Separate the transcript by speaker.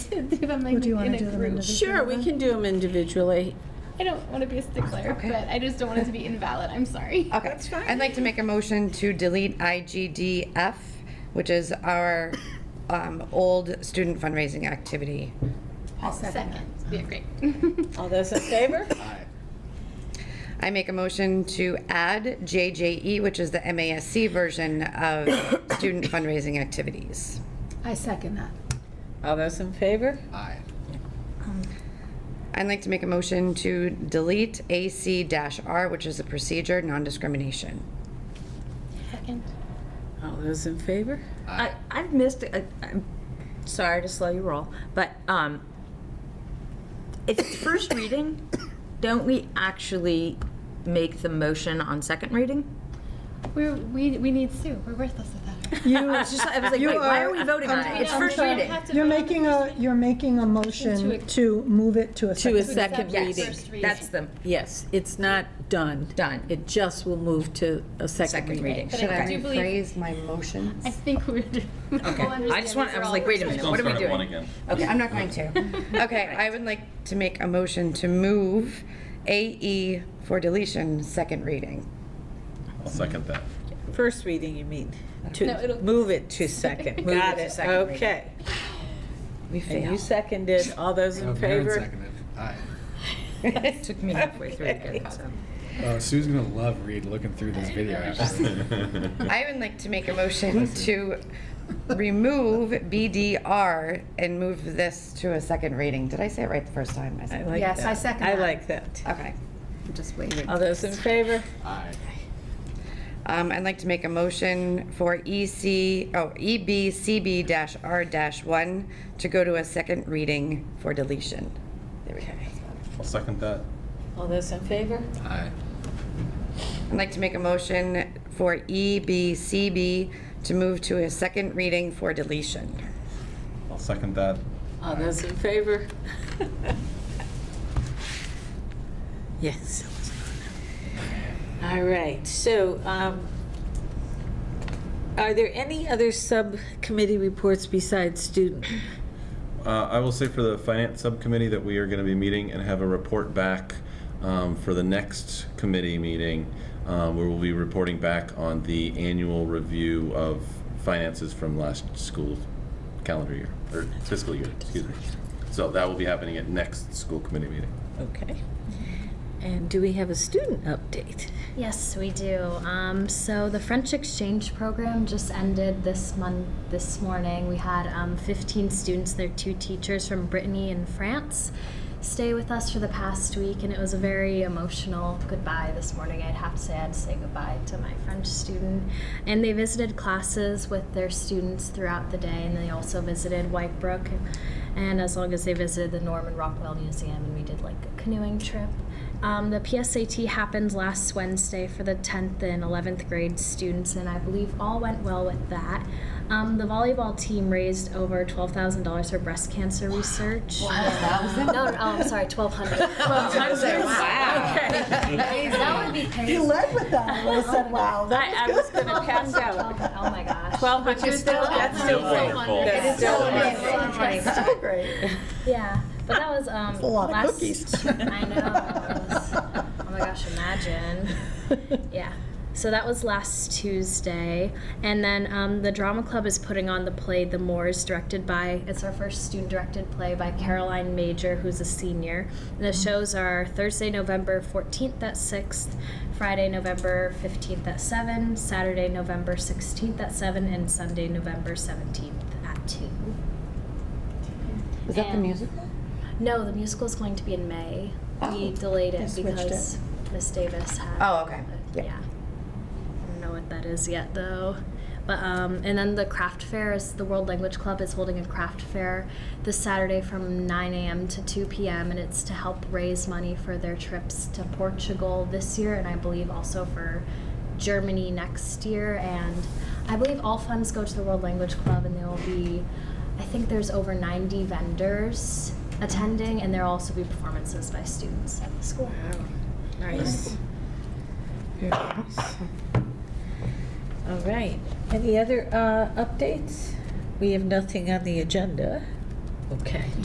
Speaker 1: to do them like
Speaker 2: Or do you
Speaker 1: in
Speaker 2: wanna
Speaker 1: a
Speaker 2: do them
Speaker 1: group.
Speaker 2: individually?
Speaker 3: Sure, we can do them individually.
Speaker 1: I don't want to be a stickler,
Speaker 4: Okay.
Speaker 1: but I just don't want it to be invalid. I'm sorry.
Speaker 4: Okay.
Speaker 3: That's fine.
Speaker 4: I'd like to make a motion to delete IGDF, which is our um, old student fundraising activity.
Speaker 1: Second. Yeah, great.
Speaker 3: All those in favor?
Speaker 4: I make a motion to add JJE, which is the MASC version of student fundraising activities.
Speaker 2: I second that.
Speaker 3: All those in favor?
Speaker 5: Aye.
Speaker 4: I'd like to make a motion to delete AC-R, which is a procedure, non-discrimination.
Speaker 1: Second.
Speaker 3: All those in favor?
Speaker 6: I, I've missed, I, I'm sorry to slow you roll, but, um, if it's first reading, don't we actually make the motion on second reading?
Speaker 1: We we we need Sue. We're worthless without her.
Speaker 6: I was just, I was like,
Speaker 2: You
Speaker 6: wait, why are we
Speaker 2: are-
Speaker 6: voting on it? It's
Speaker 1: I'm
Speaker 6: first
Speaker 1: sorry, I
Speaker 6: reading.
Speaker 1: have to
Speaker 2: You're
Speaker 1: vote on
Speaker 2: making a, you're making a
Speaker 1: To a-
Speaker 2: motion to move it to a
Speaker 3: To a
Speaker 2: second.
Speaker 3: second
Speaker 1: Yes.
Speaker 3: reading.
Speaker 1: First reading.
Speaker 6: That's the,
Speaker 3: Yes, it's not done.
Speaker 6: Done.
Speaker 3: It just will move to a second
Speaker 6: Second
Speaker 3: reading.
Speaker 6: reading.
Speaker 1: But
Speaker 4: Should
Speaker 1: I
Speaker 4: I
Speaker 1: do believe
Speaker 4: rephrase my motions?
Speaker 1: I think we're doing.
Speaker 6: okay. I just want, I was like, wait a minute, what are we doing?
Speaker 4: Okay, I'm not going to. Okay, I would like to make a motion to move AE for deletion, second reading.
Speaker 5: I'll second that.
Speaker 3: First reading, you mean?
Speaker 1: No,
Speaker 3: To,
Speaker 1: it'll-
Speaker 3: move it to second.
Speaker 6: Move it
Speaker 3: Got
Speaker 6: to
Speaker 3: it,
Speaker 6: second reading.
Speaker 3: okay.
Speaker 4: We
Speaker 3: And you
Speaker 4: failed.
Speaker 3: seconded, all those in favor?
Speaker 5: Seconded. Aye.
Speaker 6: It took me halfway through to get that.
Speaker 5: Oh, Sue's gonna love Reed looking through this video. after.
Speaker 4: I would like to make a motion to remove BDR and move this to a second reading. Did I say it right the first time? I
Speaker 3: I
Speaker 4: said-
Speaker 3: like
Speaker 2: Yes, I
Speaker 3: that.
Speaker 2: second
Speaker 3: I
Speaker 2: that.
Speaker 3: like that.
Speaker 4: Okay.
Speaker 2: Just waiting.
Speaker 3: All those in favor?
Speaker 5: Aye.
Speaker 4: Um, I'd like to make a motion for EC, oh, EBCB-R-1 to go to a second reading for deletion. There we go.
Speaker 7: I'll second that.
Speaker 3: All those in favor?
Speaker 5: Aye.
Speaker 4: I'd like to make a motion for E, EBCB to move to a second reading for deletion.
Speaker 7: I'll second that.
Speaker 3: All those in favor? Yes. All right, so um, are there any other subcommittee reports besides student?
Speaker 7: Uh, I will say for the finance subcommittee that we are going to be meeting and have a report back um, for the next committee meeting, um, where we'll be reporting back on the annual review of finances from last school calendar year, or fiscal year, excuse me. So that will be happening at next school committee meeting.
Speaker 3: Okay. And do we have a student update?
Speaker 8: Yes, we do. Um, so the French exchange program just ended this month. This morning, we had um, 15 students. Their two teachers from Brittany and France stay with us for the past week, and it was a very emotional goodbye this morning. I'd have to say I had to say goodbye to my French student, and they visited classes with their students throughout the day, and they also visited White Brook, and as long as they visited the Norman Rockwell Museum, and we did like a canoeing trip. Um, the PSAT happened last Wednesday for the 10th and 11th grade students, and I believe all went well with that. Um, the volleyball team raised over $12,000 for breast cancer research. No, no, oh, I'm sorry, 1,200. That would be
Speaker 2: He
Speaker 8: crazy.
Speaker 2: led with that, and I said, wow,
Speaker 3: I I was going to pass out.
Speaker 8: Oh my gosh.
Speaker 3: Twelve hundred still, that's still wonderful. That's still wonderful.
Speaker 2: that's so great.
Speaker 8: Yeah, but that was um,
Speaker 2: A lot
Speaker 8: last-
Speaker 2: of cookies.
Speaker 8: I know. It was- oh my gosh, imagine. Yeah. So that was last Tuesday. And then um, the Drama Club is putting on the play The Moors, directed by, it's our first student directed play by Caroline Major, who's a senior. And the shows are Thursday, November 14th at 6th, Friday, November 15th at 7, Saturday, November 16th at 7, and Sunday, November 17th at 2.
Speaker 4: Is that the
Speaker 8: And-
Speaker 4: musical?
Speaker 8: No, the musical is going to be in May.
Speaker 4: Oh,
Speaker 8: we delayed
Speaker 2: they
Speaker 8: it
Speaker 2: switched
Speaker 8: because Miss Davis had.
Speaker 4: Oh, okay. Yeah.
Speaker 8: Yeah. I don't know what that is yet, though. But um, and then the craft fair is the World Language Club is holding a craft fair this Saturday from 9 a.m. to 2 p.m. and it's to help raise money for their trips to Portugal this year and I believe also for Germany next year and I believe all funds go to the World Language Club and there will be I think there's over 90 vendors attending and there will also be performances by students at the school.
Speaker 3: Nice. All right. Any other uh, updates? We have nothing on the agenda. Okay.